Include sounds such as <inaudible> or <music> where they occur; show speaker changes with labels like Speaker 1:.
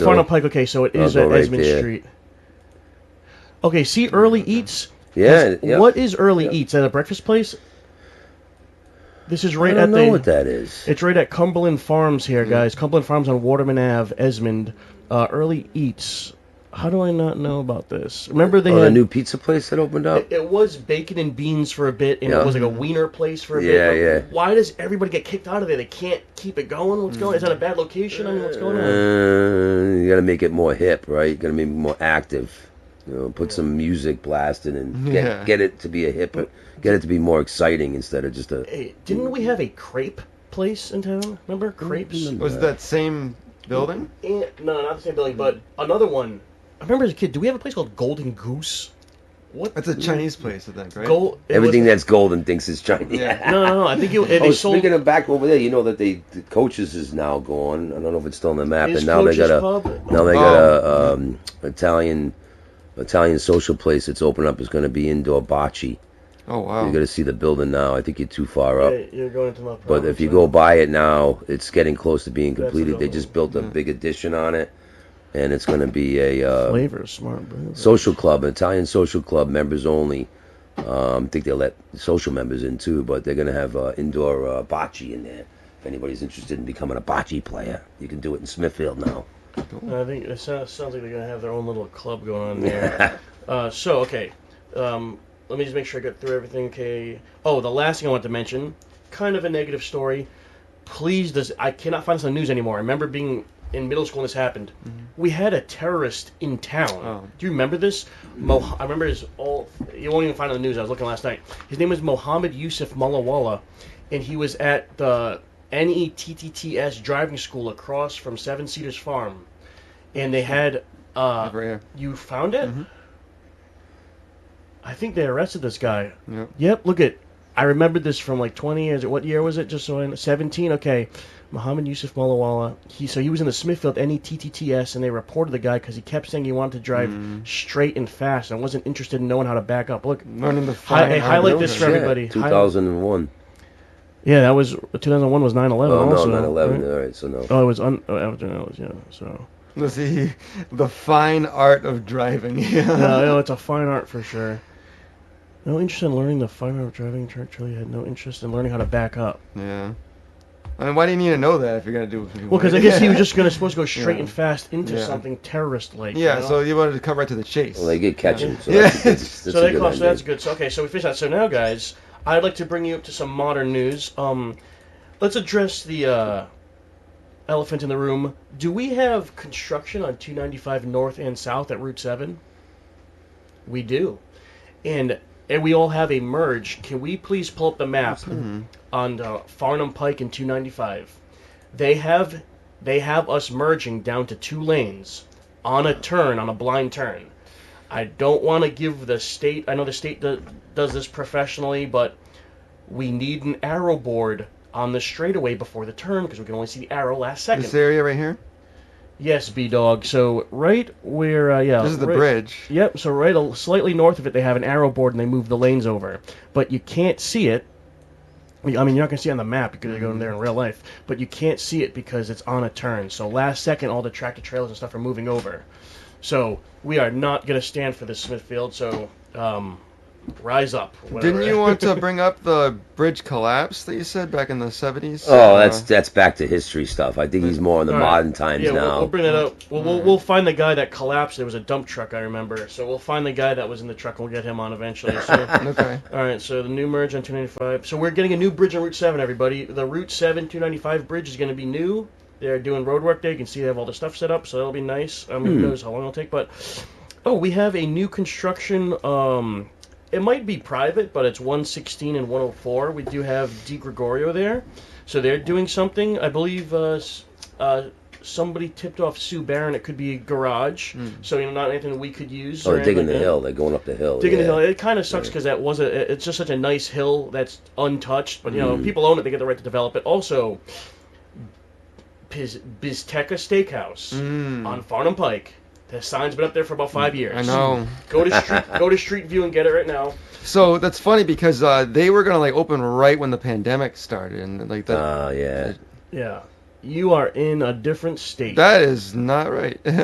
Speaker 1: Cornell Pike. Okay, so it
Speaker 2: I'll
Speaker 1: is
Speaker 2: go
Speaker 1: at
Speaker 2: right
Speaker 1: Esmond
Speaker 2: there.
Speaker 1: Street. Okay, see Early Eats.
Speaker 2: Yeah, yeah.
Speaker 1: What is Early Eats? At a breakfast place? This is
Speaker 2: I
Speaker 1: right
Speaker 2: don't
Speaker 1: at
Speaker 2: know
Speaker 1: the.
Speaker 2: what that Hmm. is.
Speaker 1: It's right at Cumberland Farms here, guys. Cumberland Farms on Waterman Ave, Esmond. Uh, Early Eats. How do I not know about this? Remember they
Speaker 2: Oh,
Speaker 1: had
Speaker 2: the new pizza place that opened up.
Speaker 1: It was bacon and beans for a bit, and
Speaker 2: Yeah.
Speaker 1: it was like a wiener place for a
Speaker 2: Yeah,
Speaker 1: bit.
Speaker 2: yeah.
Speaker 1: Why does everybody get kicked out of there? They can't keep it going.
Speaker 2: Hmm.
Speaker 1: What's going? on? Is that a bad location? I mean, what's going on?
Speaker 2: Uh, you gotta make it more hip, right? You gotta make it more active. You know, put some music blasting and get
Speaker 3: Yeah.
Speaker 2: get it to be a hip, get it to be more exciting instead of just a.
Speaker 1: Hey, didn't we have a crepe place in town? Remember
Speaker 3: Mm-hmm.
Speaker 1: crepes?
Speaker 2: remember.
Speaker 3: Was it that same building?
Speaker 1: Eh, no, not the same building, but another one. I remember as a kid. Do we have a place called Golden Goose? What?
Speaker 3: That's a Chinese place, I think, right?
Speaker 1: Gold.
Speaker 2: Everything that's golden thinks it's Chinese.
Speaker 3: Yeah.
Speaker 1: No, no, no. I think it, they
Speaker 2: <laughs> Oh,
Speaker 1: sold.
Speaker 2: speaking of back over there, you know that they the coaches is now gone. I don't know if it's still on the map,
Speaker 1: Is
Speaker 2: and now they
Speaker 1: Coach's
Speaker 2: got a
Speaker 1: Pub?
Speaker 2: now they got a um, Italian Italian social place that's open up. It's going to be indoor bocce.
Speaker 3: Oh wow.
Speaker 2: You're going to see the building now. I think you're too far up.
Speaker 1: Hey, you're going into my.
Speaker 2: But if
Speaker 1: province,
Speaker 2: you
Speaker 1: huh?
Speaker 2: go by it now, it's getting close to being completed. They
Speaker 1: another
Speaker 2: just built a big addition on it, and it's going to be a uh,
Speaker 1: flavor smart. Bro.
Speaker 2: social club, an Italian social club, members only. Um, I think they let social members in too, but they're going to have uh, indoor uh, bocce in there. If anybody's interested in becoming a bocce player, you can do it in Smithfield now.
Speaker 1: I think it sounds, sounds like they're gonna have their own little club going on there. uh, so okay, um, let me just make sure I got through everything. Okay. Oh, the last thing I want to mention, kind of a negative story. Please, does I cannot find this on the news anymore. I remember being in middle school when this happened. We had a terrorist in town.
Speaker 3: Oh.
Speaker 1: Do you remember this? Mo- I remember his all. You won't even find it on the news. I was looking last night. His name was Mohammed Yusuf Mullawalla, and he was at the E NETTTS driving school across from Seven Cedars Farm and they had uh
Speaker 3: Over here.
Speaker 1: you found it
Speaker 2: Mm-hmm.
Speaker 1: i think they arrested this guy
Speaker 3: Yep.
Speaker 1: yep look at i remembered this from like 20 years what year was it just so i 17 okay Muhammad Yusuf Malawala, he so he was in the Smithfield E NETTTS, and they reported the guy because he kept saying he wanted to drive
Speaker 2: Mm-hmm.
Speaker 1: straight and fast and wasn't interested in knowing how to back up. Look,
Speaker 3: Learning the
Speaker 1: Hi- hey,
Speaker 3: fine art
Speaker 1: highlight
Speaker 3: of
Speaker 1: this
Speaker 3: it.
Speaker 1: for
Speaker 2: Yeah,
Speaker 1: everybody. Hi-
Speaker 2: 2001.
Speaker 1: yeah, that was 2001 was 9/11.
Speaker 2: Oh, no,
Speaker 1: also,
Speaker 2: 9 11.
Speaker 1: right?
Speaker 2: All right, so no.
Speaker 1: Oh, it was un. Oh, after that was yeah. So
Speaker 3: <laughs> Let's see, the fine art of driving. <laughs> Yeah.
Speaker 1: no, no, it's a fine art for sure. No interest in learning the fine art of driving. Chuck Charlie had no interest in learning how to back up.
Speaker 3: yeah. I mean, why do you need to know that if you're gonna do? It
Speaker 1: Well, because I guess he was just gonna supposed to go straight
Speaker 3: Yeah.
Speaker 1: and fast into
Speaker 3: Yeah.
Speaker 1: something terrorist like.
Speaker 3: <laughs> Yeah. So you wanted to come right to the chase.
Speaker 2: Well, they did catch him. So
Speaker 3: Yeah.
Speaker 2: that's, that's, that's
Speaker 1: <laughs> so
Speaker 2: a
Speaker 1: that
Speaker 2: good
Speaker 1: cost, so that's
Speaker 2: idea.
Speaker 1: good. So okay, so we finished that. So now, guys, I'd like to bring you up to some modern news. Um, let's address the uh, elephant in the room. Do we have construction on 295 North and South at Route Seven? We do, and and we all have a merge. Can we please pull up the map on uh, Farnham Pike and 295? They have they have us merging down to two lanes on a turn on a blind turn. I don't want to give the state. I know the state do, does this professionally, but we need an arrow board on the straightaway before the turn because we can only see the arrow last second.
Speaker 3: This area right here.
Speaker 1: Yes, B dog. So right where uh, yeah,
Speaker 3: This is the
Speaker 1: right-
Speaker 3: bridge.
Speaker 1: <laughs> Yep. So right a, slightly north of it, they have an arrow board and they move the lanes over, but you can't see it. I mean, you're not gonna see it on the map because you're going there in real life, but you can't see it because it's on a turn. So last second, all the tractor trailers and stuff are moving over. So we are not gonna stand for this Smithfield. So um, rise up. whatever.
Speaker 3: Didn't you want to bring up the bridge collapse that you said back in the 70s?
Speaker 2: Oh, that's that's back to history stuff. I think he's more in the
Speaker 1: uh, All right.
Speaker 2: modern times
Speaker 1: yeah, we'll-
Speaker 2: now.
Speaker 1: We'll, bring that up. We'll, we'll, we'll find the guy that collapsed. There was a dump truck, I remember. So we'll find the guy that was in the truck and we'll get him on eventually.
Speaker 2: <laughs>
Speaker 1: So,
Speaker 3: Uh, okay.
Speaker 1: all right, so the new merge on 295. So we're getting a new bridge on Route 7, everybody. The Route 7 295 bridge is going to be new. They're doing road work there. You can see they have all the stuff set up, so that'll be nice. I
Speaker 2: Hmm.
Speaker 1: mean, who knows how long it'll take. But, oh, we have a new construction. Um, it might be private, but it's 116 and 104. We do have Di Gregorio there. So they're doing something. I believe uh, s- uh, somebody tipped off Sue Barron. It could be a garage. So, you know, not anything we could use.
Speaker 2: Hmm. Oh,
Speaker 1: or
Speaker 2: they're digging
Speaker 1: anything like
Speaker 2: the
Speaker 1: that
Speaker 2: hill. They're going up the hill.
Speaker 1: digging
Speaker 2: yeah.
Speaker 1: the hill. It kind of sucks because that was a. It's just such a nice hill that's untouched. But you know, people own it; they get the right to develop it. Also, Piz, Bizteca Steakhouse on Farnham Pike. The sign's been up there for about five years.
Speaker 3: I know.
Speaker 1: Go to street, go to Street View and get it right now.
Speaker 3: So that's funny because uh, they were gonna like open right when the pandemic started, and like that.
Speaker 2: Ah, yeah.
Speaker 1: Yeah. you are in a different state.
Speaker 3: That is not right. <laughs>